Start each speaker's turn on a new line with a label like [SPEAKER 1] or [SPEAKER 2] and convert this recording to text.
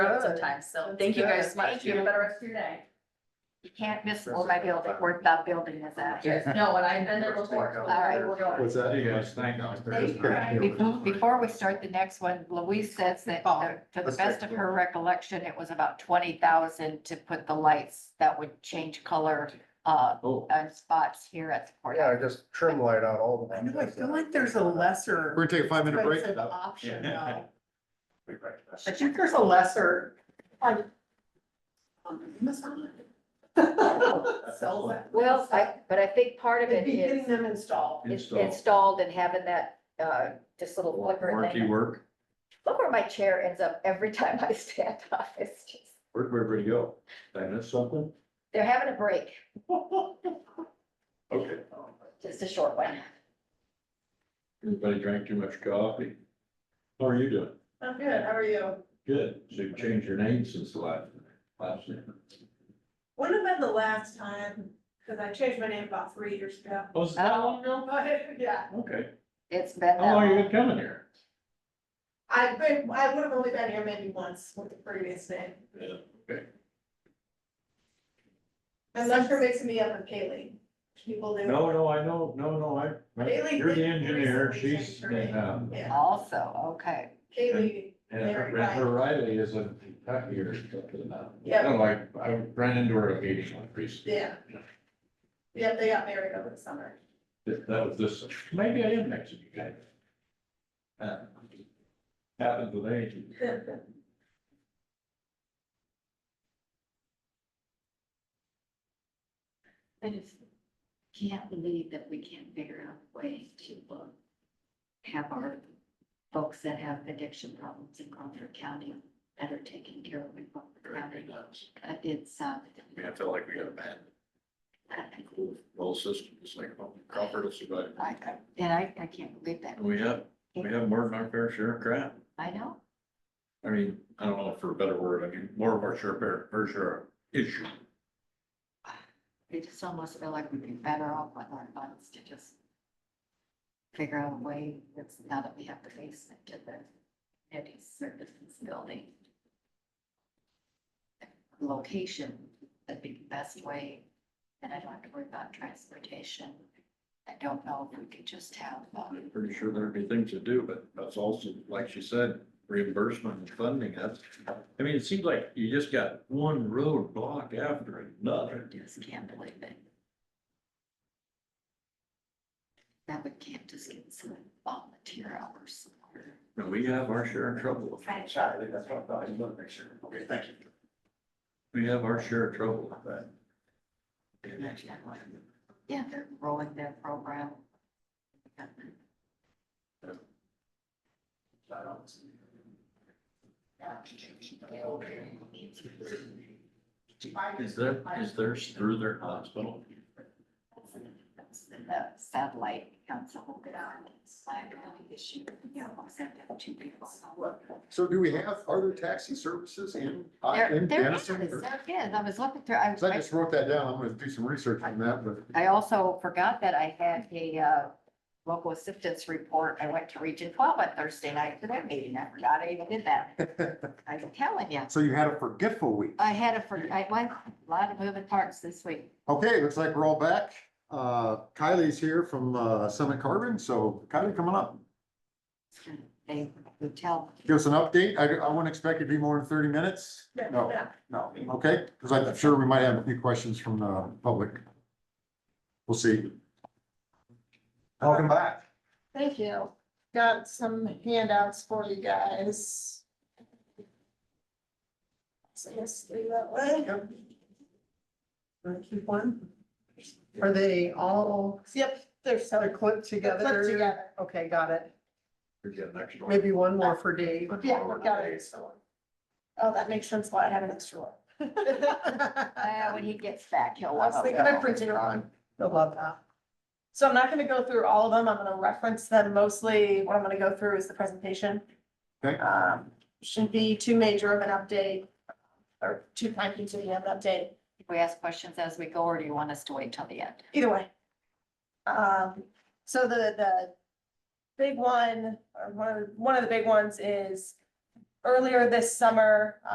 [SPEAKER 1] go time, so thank you guys so much.
[SPEAKER 2] Thank you.
[SPEAKER 1] Have a better rest of your day.
[SPEAKER 2] You can't miss all my building, where that building is at.
[SPEAKER 1] No, and I've been there before.
[SPEAKER 2] All right.
[SPEAKER 1] We're going.
[SPEAKER 3] What's that?
[SPEAKER 4] You guys, thank you.
[SPEAKER 2] Before, before we start the next one, Louise says that the- to the best of her recollection, it was about twenty thousand to put the lights that would change color, uh,
[SPEAKER 4] Oh,
[SPEAKER 2] on spots here at the
[SPEAKER 5] Oh, Yeah,
[SPEAKER 2] courthouse.
[SPEAKER 5] just trim light out all the.
[SPEAKER 6] I know, I feel like there's a lesser.
[SPEAKER 3] We're gonna take a five minute break.
[SPEAKER 6] expensive Option
[SPEAKER 4] Yeah.
[SPEAKER 6] though. I think there's a lesser. like, on Amazon. Sell that.
[SPEAKER 2] Well, I, but I think part of
[SPEAKER 6] It'd
[SPEAKER 2] it
[SPEAKER 6] be getting
[SPEAKER 2] is
[SPEAKER 6] them installed.
[SPEAKER 2] is
[SPEAKER 4] install.
[SPEAKER 2] installed and having that, uh, just little flicker
[SPEAKER 4] Worky
[SPEAKER 2] thing.
[SPEAKER 4] work,
[SPEAKER 2] Look where my chair ends up every time I stand up. It's just,
[SPEAKER 4] where'd everybody go? Did I miss something?
[SPEAKER 2] they're having a break,
[SPEAKER 4] Okay,
[SPEAKER 2] just a short one.
[SPEAKER 4] everybody drank too much coffee. How are you doing?
[SPEAKER 6] I'm good, how are you?
[SPEAKER 4] Good, so you've changed your name since the last, last name.
[SPEAKER 6] When have been the last time, because I changed my name about three years ago.
[SPEAKER 4] Oh, is it that long ago?
[SPEAKER 6] But, yeah,
[SPEAKER 4] Okay,
[SPEAKER 2] It's been that
[SPEAKER 4] how long
[SPEAKER 2] long.
[SPEAKER 4] you been coming here?
[SPEAKER 6] I've been, I would have only been here maybe once with the previous name,
[SPEAKER 4] Yeah, okay.
[SPEAKER 6] unless you're mixing me up with Kaylee. People do.
[SPEAKER 4] No, no, I know, no, no, I,
[SPEAKER 6] Bailey
[SPEAKER 4] you're the
[SPEAKER 6] did
[SPEAKER 4] engineer,
[SPEAKER 6] recently
[SPEAKER 4] she's,
[SPEAKER 6] change her name.
[SPEAKER 4] um,
[SPEAKER 6] Yeah,
[SPEAKER 2] Also, okay.
[SPEAKER 6] Kaylee,
[SPEAKER 4] and her- and her Riley is in Kentucky or something now. I
[SPEAKER 6] Yeah.
[SPEAKER 4] don't like, I ran into her at a meeting like recently.
[SPEAKER 6] yeah. Yeah, they got married over the summer.
[SPEAKER 4] That that was this, maybe I am next to you guys. Uh, Happened with age.
[SPEAKER 2] I just can't believe that we can't figure out a way to uh, have our folks that have addiction problems in Crawford County that are taken care of in Crawford County. Uh, It's, uh,
[SPEAKER 4] I mean, I feel like we got a bad, whole system, it's like, oh, Crawford will survive.
[SPEAKER 2] I, I- and I, I can't believe that.
[SPEAKER 4] And We have, we have more than our fair share of crap.
[SPEAKER 2] I know.
[SPEAKER 4] I mean, I don't know for a better word, I mean, more of our share, fair, fair share of issue.
[SPEAKER 2] It just almost feel like we'd be better off with our funds to just figure out a way that's now that we have the basement to the community services building. Location, that'd be the best way, and I don't have to worry about transportation. I don't know if we could just have, um,
[SPEAKER 4] I'm pretty sure there'd be things to do, but that's also, like she said, reimbursement and funding, that's, I mean, it seems like you just got one road block after
[SPEAKER 2] I
[SPEAKER 4] another.
[SPEAKER 2] just can't believe it. That would can't just get some volunteer hours somewhere.
[SPEAKER 4] And we have our share of trouble.
[SPEAKER 5] Sorry, that's what I thought, I just wanted to make sure. Okay, thank you.
[SPEAKER 4] We have our share of trouble with that.
[SPEAKER 2] Yeah, they're rolling their program.
[SPEAKER 4] Is there, is theirs through their hospital?
[SPEAKER 2] The satellite council will get on this liability issue. Yeah, I'll send them two people.
[SPEAKER 3] So do we have, are there taxi services in, uh,
[SPEAKER 2] There,
[SPEAKER 3] in
[SPEAKER 2] there
[SPEAKER 3] Denison?
[SPEAKER 2] is,
[SPEAKER 3] Or-
[SPEAKER 2] there is. I was looking through, I,
[SPEAKER 3] 'cause I just wrote that down. I'm gonna do some research on that, but
[SPEAKER 2] I also forgot that I had a, uh, local assistance report. I went to Region Twelve on Thursday night for that meeting. I forgot I even did that. I'm telling you.
[SPEAKER 3] so you had a forgetful week.
[SPEAKER 2] I had a, for- I, went a lot of moving parts this week.
[SPEAKER 3] Okay, looks like we're all back. Uh, Kylie's here from, uh, Summit Carbon. So Kylie, coming up.
[SPEAKER 2] They would tell,
[SPEAKER 3] Give us an update. I, I wouldn't expect it to be more than thirty minutes. No,
[SPEAKER 6] Yeah.
[SPEAKER 3] no, okay, because I'm sure we might have a few questions from the public. We'll see. Welcome back.
[SPEAKER 7] Thank you. Got some handouts for you guys.
[SPEAKER 6] So let's do that way.
[SPEAKER 7] Wanna keep one? Are they all? Yep, they're so. Clipped together? Clipped together. Okay, got it.
[SPEAKER 4] We're getting next door.
[SPEAKER 7] Maybe one more for Dave.
[SPEAKER 6] Yeah, we got it. So- Oh, that makes sense why I have an extra one.
[SPEAKER 2] uh, when he gets back, he'll.
[SPEAKER 7] I was
[SPEAKER 2] want to
[SPEAKER 7] thinking Oh, I
[SPEAKER 2] go.
[SPEAKER 7] printed it on. I love that. So I'm not gonna go through all of them. I'm gonna reference them mostly. What I'm gonna go through is the presentation.
[SPEAKER 3] Okay.
[SPEAKER 7] Um, shouldn't be too major of an update or too time consuming of an update.
[SPEAKER 2] If We ask questions as we go, or do you want us to wait till the end?
[SPEAKER 7] Either way. Um, so the, the big one, or one of, the- one of the big ones is earlier this summer,